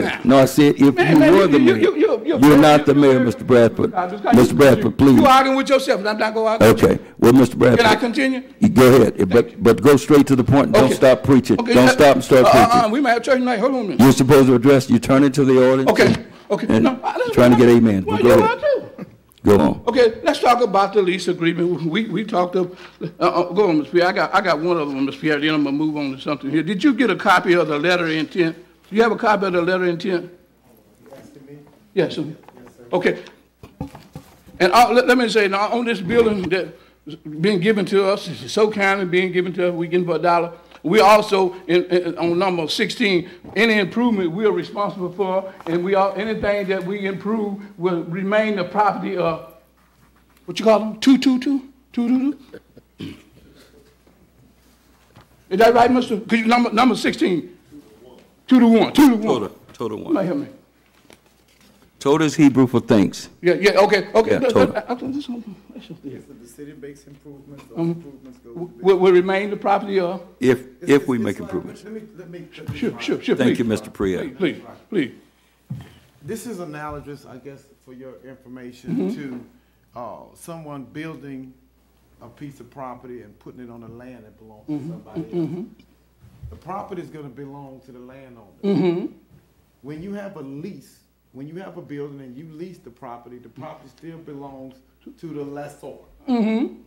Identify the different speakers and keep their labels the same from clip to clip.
Speaker 1: now.
Speaker 2: No, I said if
Speaker 1: Man,
Speaker 2: you
Speaker 1: man,
Speaker 2: were the
Speaker 1: you-
Speaker 2: mayor,
Speaker 1: you- you- you-
Speaker 2: you're not the mayor,
Speaker 1: you-
Speaker 2: Mr. Bradford.
Speaker 1: I just got you-
Speaker 2: Mr. Bradford, please.
Speaker 1: You arguing with yourself, and I'm not going to argue.
Speaker 2: Okay, well, Mr.
Speaker 1: Can I
Speaker 2: Bradford,
Speaker 1: continue?
Speaker 2: you go ahead, but, but go straight to the point. Don't
Speaker 1: Okay.
Speaker 2: stop preaching.
Speaker 1: Okay,
Speaker 2: Don't
Speaker 1: uh,
Speaker 2: stop and start
Speaker 1: uh, uh, uh,
Speaker 2: preaching.
Speaker 1: We might have church tonight, hold on a minute.
Speaker 2: You're supposed to address, you turn it to the audience.
Speaker 1: Okay, okay.
Speaker 2: and
Speaker 1: No, I- that's
Speaker 2: Trying to
Speaker 1: what
Speaker 2: get
Speaker 1: I-
Speaker 2: amen.
Speaker 1: Well,
Speaker 2: But Go
Speaker 1: you
Speaker 2: ahead.
Speaker 1: are too.
Speaker 2: Go on.
Speaker 1: Okay, let's talk about the lease agreement. We, we talked of, uh, uh, go on, Ms. Pierre, I got, I got one of them, Ms. Pierre, then I'm gonna move on to something here. Did you get a copy of the letter of intent? Do you have a copy of the letter of intent? Yes, sir. Okay. And uh, let, let me say, now, on this building that's been given to us, so kindly being given to us, we getting for a dollar. We also, in, in, on number sixteen, any improvement we are responsible for, and we are, anything that we improve will remain the property of, what you call them, two, two, two, two, two, two? Is that right, mister? Cause you, number, number sixteen? Two to one, two to one.
Speaker 2: Total, total
Speaker 1: Somebody
Speaker 2: one.
Speaker 1: help me.
Speaker 2: Total is Hebrew for thanks.
Speaker 1: Yeah, yeah, okay, okay.
Speaker 2: Yeah,
Speaker 1: That-
Speaker 2: total.
Speaker 1: that- I- I think this one- that's just it.
Speaker 3: So the city makes improvements, those
Speaker 2: Um,
Speaker 3: improvements go to the.
Speaker 1: Will, will remain the property of,
Speaker 2: If,
Speaker 3: It's-
Speaker 2: if we
Speaker 3: it's-
Speaker 2: make
Speaker 3: it's like-
Speaker 2: improvements.
Speaker 3: Let me, let me. let me
Speaker 1: sure,
Speaker 3: try.
Speaker 1: sure, sure, please.
Speaker 2: Thank you, Mr. Priya.
Speaker 1: Please, please.
Speaker 3: This is analogous, I guess, for your
Speaker 2: Mm-hmm.
Speaker 3: information to, uh, someone building a piece of property and putting it on the land that belongs to
Speaker 2: Mm-hmm.
Speaker 3: somebody else. The property is gonna belong to the
Speaker 2: Mm-hmm.
Speaker 3: landowner. When you have a lease, when you have a building and you lease the property, the property still belongs to the lessor. In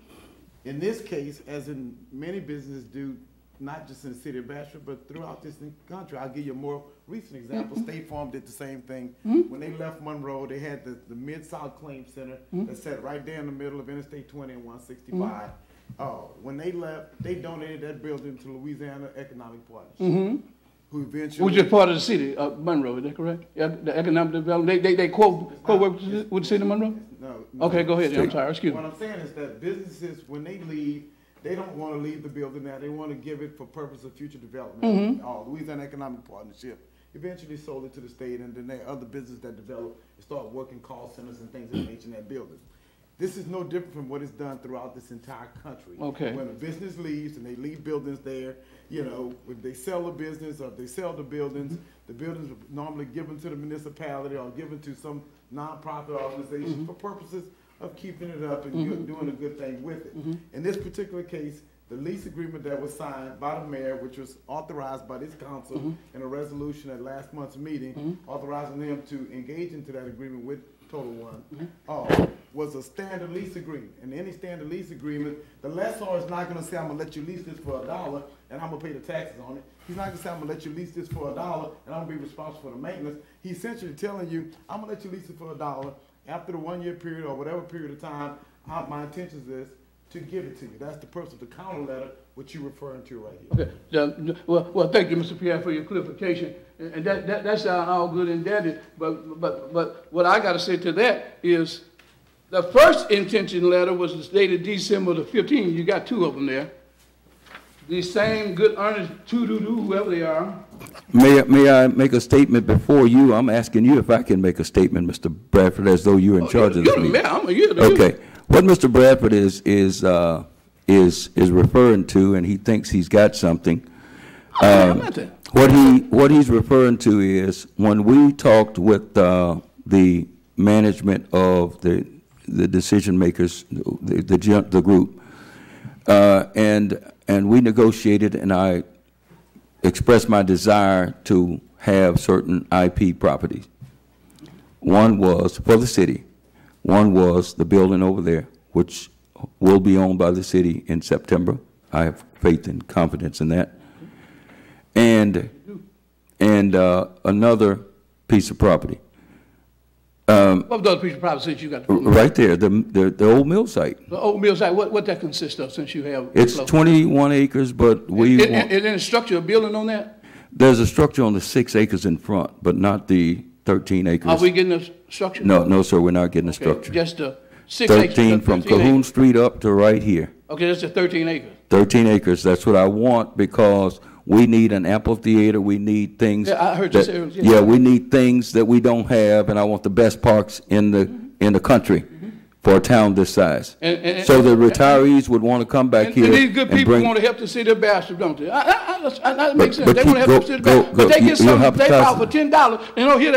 Speaker 3: this case, as in many businesses do, not just in the city of Bastrop, but throughout this country, I'll give you a more recent example. State Farm did the same thing. When they left Monroe, they had the, the Mid-South Claim Center that sat right there in the middle of Interstate twenty and one sixty-five. Uh, when they left, they donated that building to Louisiana Economic Partnership, who eventually.
Speaker 1: Which is part of the city of Monroe, is that correct? Yeah, The economic development, they, they, they quote, quote work with the- with the city of Monroe?
Speaker 3: No, no.
Speaker 1: Okay, go ahead, I'm sorry, excuse
Speaker 3: What
Speaker 1: me.
Speaker 3: I'm saying is that businesses, when they leave, they don't want to leave the building now. They want to give it for purpose of future development.
Speaker 1: Mm-hmm.
Speaker 3: Uh, Louisiana Economic Partnership eventually sold it to the state, and then there are other businesses that develop and start working call centers and things of that nature in that building. This is no different from what is done throughout this entire country.
Speaker 1: Okay.
Speaker 3: When a business leaves and they leave buildings there, you know, if they sell a business or if they sell the buildings, the buildings are normally given to the municipality or given to some nonprofit organization for purposes of keeping it up and good- doing a good thing with it. In this particular case, the lease agreement that was signed by the mayor, which was authorized by this council in a resolution at last month's meeting, authorizing them to engage into that agreement with Total One, uh, was a standard lease agreement. And any standard lease agreement, the lessor is not gonna say, I'm gonna let you lease this for a dollar and I'm gonna pay the taxes on it. He's not gonna say, I'm gonna let you lease this for a dollar and I'm gonna be responsible for the maintenance. He's essentially telling you, I'm gonna let you lease it for a dollar. After the one-year period or whatever period of time, I- my intention is to give it to you. That's the purpose of the counter letter, which you're referring to right here.
Speaker 1: Okay, the- the- well, well, thank you, Mr. Pierre, for your clarification. And and that, that, that's uh, all good and dandy, but, but, but what I gotta say to that is, the first intention letter was dated December the fifteenth, you got two of them there. These same good earnest two-doo-doo, whoever they are,
Speaker 2: May, I- may I make a statement before you? I'm asking you if I can make a statement, Mr. Bradford, as though you're in charge of this
Speaker 1: You're Oh, the
Speaker 2: meeting.
Speaker 1: mayor, I'm, you're the. you're the-
Speaker 2: Okay, what Mr. Bradford is, is, uh, is, is referring to, and he thinks he's got something, um,
Speaker 1: I'm not there.
Speaker 2: what he, what he's referring to is, when we talked with, uh, the management of the, the decision makers, the, the, gen- the group, uh, and, and we negotiated, and I expressed my desire to have certain IP properties. One was for the city. One was the building over there, which will be owned by the city in September. I have faith and confidence in that. And, and uh, another piece of property,
Speaker 1: What other piece of property since you got
Speaker 2: r-
Speaker 1: the,
Speaker 2: right there, the, the, the old mill site.
Speaker 1: the old mill site, what, what that consists of since you have?
Speaker 2: It's 21 acres, but we
Speaker 1: Is,
Speaker 2: want,
Speaker 1: is there any structure, or building on that?
Speaker 2: there's a structure on the six acres in front, but not the 13
Speaker 1: Are
Speaker 2: acres.
Speaker 1: we getting a s- structure?
Speaker 2: No, no, sir, we're not getting a
Speaker 1: Okay,
Speaker 2: structure.
Speaker 1: Just the six acres.
Speaker 2: 13 from
Speaker 1: 13 acres.
Speaker 2: Cahoon Street up to right here.
Speaker 1: Okay, that's the thirteen acres.
Speaker 2: 13 acres, that's what I want, because we need an amphitheater, we need things.
Speaker 1: Yeah, I heard you
Speaker 2: that-
Speaker 1: say earlier, yeah.
Speaker 2: Yeah, we need things that we don't have, and I want the best parks in the, in the country for a town this size.
Speaker 1: Mm-hmm. And- and-
Speaker 2: So the retirees would want to come back
Speaker 1: And,
Speaker 2: here
Speaker 1: and these good
Speaker 2: and
Speaker 1: people
Speaker 2: bring.
Speaker 1: want to help the city of Bastrop, don't they? I, I, I, I- that makes
Speaker 2: But-
Speaker 1: sense.
Speaker 2: but
Speaker 1: They want to
Speaker 2: you
Speaker 1: help the
Speaker 2: go-
Speaker 1: city of
Speaker 2: go-
Speaker 1: Bastrop. But
Speaker 2: go-
Speaker 1: they
Speaker 2: you-
Speaker 1: get
Speaker 2: you're
Speaker 1: something, they file
Speaker 2: hypothesizing.
Speaker 1: for ten dollars, oh, and don't hear